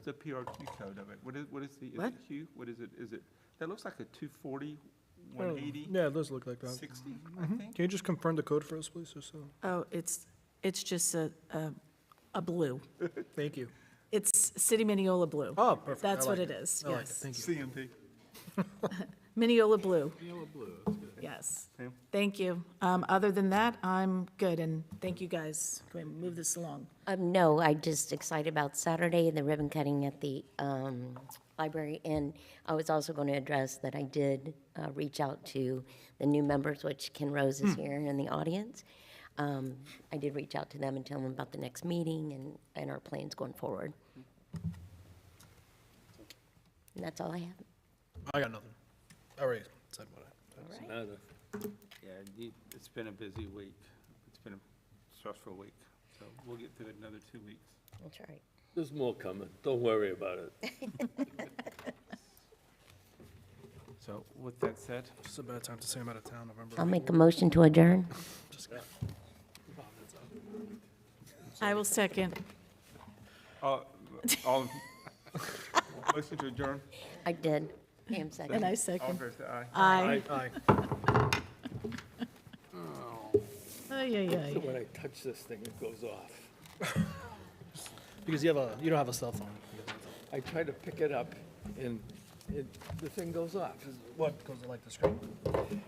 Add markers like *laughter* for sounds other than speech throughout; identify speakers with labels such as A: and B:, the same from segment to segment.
A: It's a PRQ code of it. What is, what is the, is
B: What?
A: it Hugh? What is it? Is it, that looks like a 240,
C: Oh,
A: 180,
C: Yeah, it does look like that.
A: 60, I
C: Mhm.
A: think?
C: Can you just confirm the code for us, please, just so?
B: Oh, it's, it's just a, a, a blue.
C: *laughs* Thank you.
B: It's City Mineola Blue.
C: Oh, perfect. I
B: That's what
C: like
B: it is,
C: I like it.
B: yes.
C: Thank you.
A: CMP.
B: Mineola Blue. Yes.
A: Sam?
B: Thank you. Um, Other than that, I'm good, and thank you guys. Can we move this along?
D: Um, no, i just excited about Saturday, the ribbon cutting at the, um, library. And I was also going to address that I did, uh, reach out to the new members, which Ken Rose is here in the audience. Um, I did reach out to them and tell them about the next meeting and, and our plans going forward. And that's all I have.
C: I got nothing. I already said what I.
D: All right.
E: Nada.
A: Yeah, you- it's been a busy week. It's been a stressful week, so we'll get through it in another two weeks.
D: That's all right.
E: There's more coming. Don't worry about it.
A: So with that said,
C: It's a bad time to say I'm out of town November.
D: I'll make a motion to adjourn.
C: Just kidding.
B: I will second.
A: all, Uh, all- *laughs* motion to adjourn.
D: I did. Pam seconded.
B: And I
A: All in
B: second.
A: favor, say aye.
B: Aye.
C: Aye.
B: *laughs* Ay, ay, ay.
E: When I touch this thing, it goes off.
C: Because you have a, you don't have a cell phone.
E: I try to pick it up and it, the thing goes off.
C: What goes like the screen?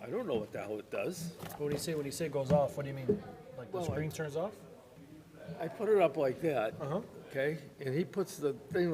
E: I don't know what the hell it does.
C: What do you say when you say goes off? What do you mean? Like the
E: Well, I-
C: screen turns off?
E: I put it up like that,
C: Uh huh.
E: okay? And he puts the thing